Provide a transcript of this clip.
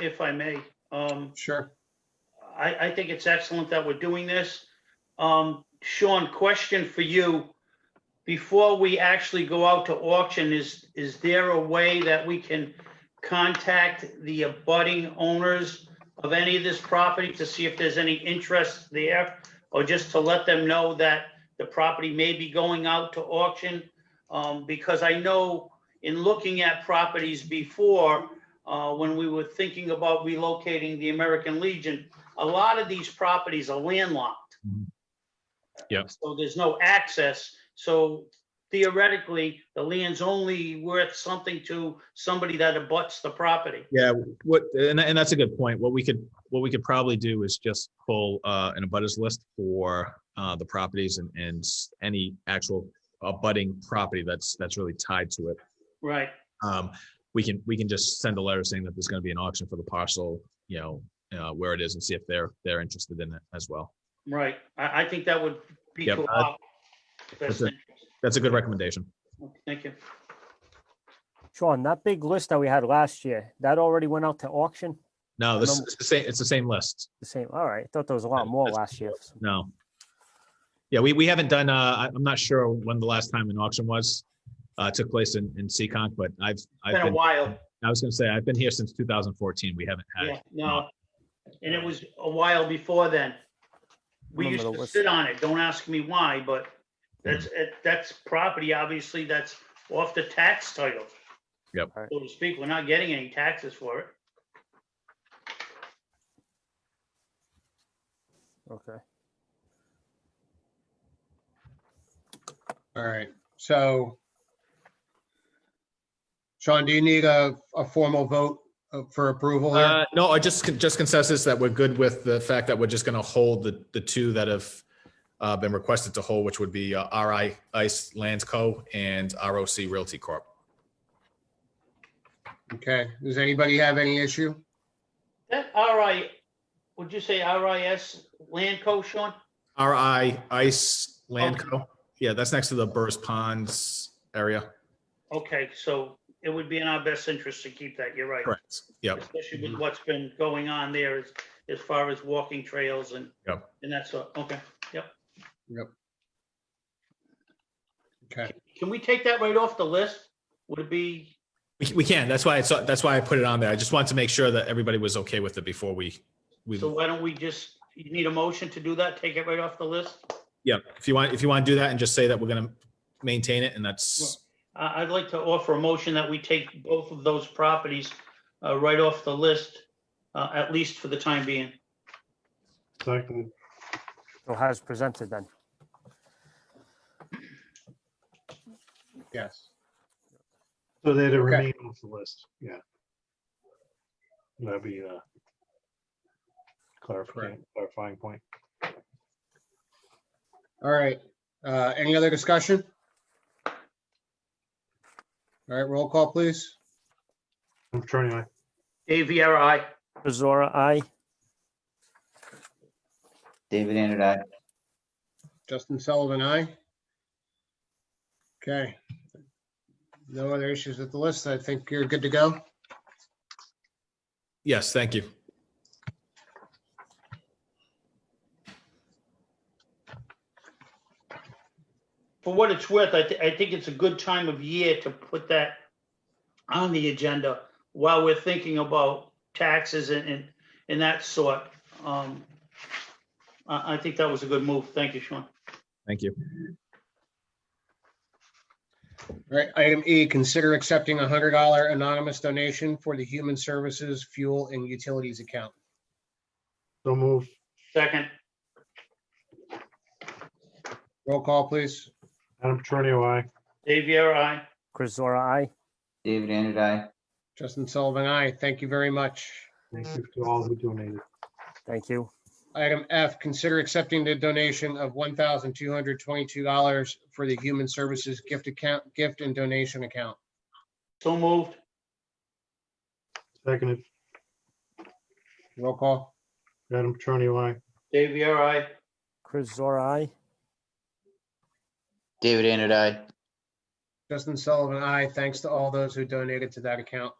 if I may. Um, Sure. I, I think it's excellent that we're doing this. Um, Sean, question for you. Before we actually go out to auction, is, is there a way that we can contact the abutting owners of any of this property to see if there's any interest there? Or just to let them know that the property may be going out to auction? Um, because I know in looking at properties before, uh, when we were thinking about relocating the American Legion, a lot of these properties are landlocked. Mhm. Yep. So there's no access. So theoretically, the land's only worth something to somebody that abuts the property. Yeah, what, and, and that's a good point. What we could, what we could probably do is just pull, uh, an abutters list for, uh, the properties and, and s- any actual abutting property that's, that's really tied to it. Right. Um, we can, we can just send a letter saying that there's gonna be an auction for the parcel, you know, uh, where it is and see if they're, they're interested in it as well. Right. I, I think that would be. Yep, to I- our best that's it. interest. That's a good recommendation. Thank you. Sean, that big list that we had last year, that already went out to auction? No, this is the same, it's the same list. The same, all right, I thought there was a lot Yeah, more that's- last year. No. Yeah, we, we haven't done, uh, I- I'm not sure when the last time an auction was, uh, took place in, in Seccong, but I've, I've Been a been, while. I was gonna say, I've been here since 2014. We haven't Yeah, had, no. And it was a while before then. We used Remember the to list. sit on it. Don't ask me why, but that's, it- that's property, obviously, that's off the tax title. Yep. Right. So to speak, we're not getting any taxes for it. Okay, All right, so. Sean, do you need a, a formal vote uh, for approval here? uh, no, I just, just consensus that we're good with the fact that we're just gonna hold the, the two that have, uh, been requested to hold, which would be, uh, RI Ice Lands Co. and ROC Realty Corp. Okay, does anybody have any issue? That RI, would you say RIS Land Co, Sean? RI Ice Land Co. Yeah, that's next to the Burris Ponds area. Okay, so it would be in our best interest to keep that. You're right. Correct. Yep. Mm-hmm. Especially with what's been going on there as, as far as walking trails and, Yep. and that sort. Okay. Okay, Can we take that right off the list? Would it be? We, we can. That's why it's, that's why I put it on there. I just wanted to make sure that everybody was okay with it before we, we, So why don't we just, you need a motion to do that, take it right off the list? yeah, if you want, if you want to do that and just say that we're going to maintain it and that's, I, I'd like to offer a motion that we take both of those properties uh, right off the list, uh, at least for the time being. Second, so how's presented then? yes. so they'd have Okay. remained off the list, yeah. That'd be a clarifying, clarifying point. All right, uh, any other discussion? All right, roll call, please. I'm turning my, Dave Viera, aye. Bezora, I, David Andrew, I. Justin Sullivan, aye. Okay. No other issues with the list. I think you're good to go. yes, thank you. For what it's worth, I, thi- I think it's a good time of year to put that on the agenda while we're thinking about taxes and, and, and that sort. Um, I, I think that was a good move. Thank you, Sean. Thank you. All right, item E, consider accepting a hundred dollar anonymous donation for the Human Services Fuel and Utilities account. so move, Second, Roll call, please. Adam Petronio, I, Dave Viera, aye. Chryzora, I, David Andrew, I. Justin Sullivan, aye. Thank you very much. thank you to all who donated. thank you. Item F, consider accepting the donation of one thousand two hundred twenty-two dollars for the Human Services Gift Account, Gift and Donation Account. So moved. Seconded, Roll call. Adam Petronio, I, Dave Viera, aye. Chryzora, I, David Andrew, I. Justin Sullivan, aye. Thanks to all those who donated to that account.